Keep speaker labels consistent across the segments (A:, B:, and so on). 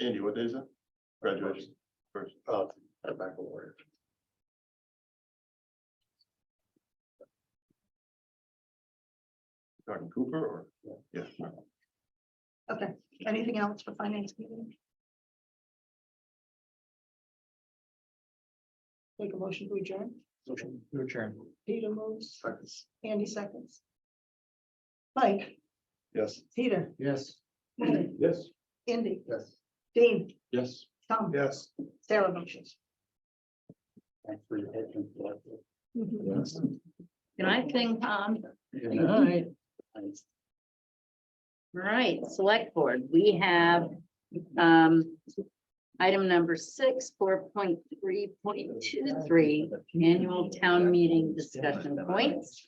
A: Andy, what day is it? Graduation. First, uh, at Baccalaureate. Talking Cooper or? Yeah.
B: Okay, anything else for finance meeting? Make a motion to adjourn.
A: Motion to adjourn.
B: Peter moves, Andy seconds. Mike,
A: Yes.
B: Peter,
A: Yes.
B: Mike,
A: Yes.
B: Andy,
A: Yes.
B: Dean,
A: Yes.
B: Tom,
A: Yes.
B: Sarah motions.
A: Thanks for your help. Yes.
C: Good night, King Tom.
A: Good
C: night. Right, select board, we have, um, item number six, four point three point two three, annual town meeting discussion points.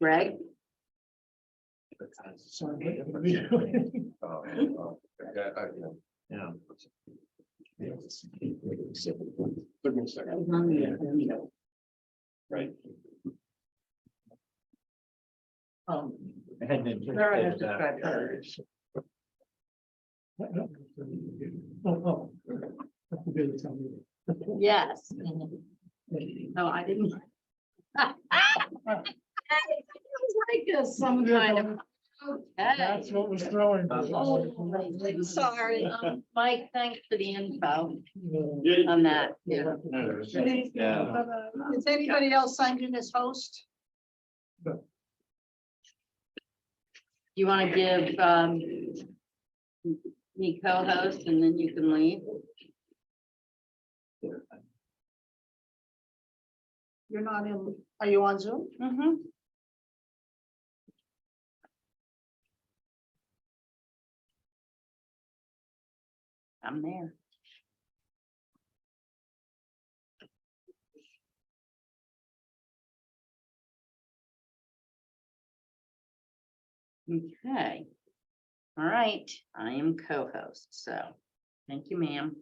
C: Greg,
A: Yeah. Took me a second. Right.
C: um,
A: I had to.
C: Laura has described her.
A: Oh,
C: yes, no, I didn't. I was Like a some kind of. Okay.
A: That's what was throwing.
C: Oh, Sorry, um, Mike, thanks for the info
A: Yeah.
C: on that.
A: Yeah.
B: Uh, Is anybody else signed in as host?
C: You want to give, um, me co-host and then you can leave?
B: You're not in, are you on Zoom?
C: Mm-hmm. I'm there. Okay. All right, I am co-host, so thank you, ma'am.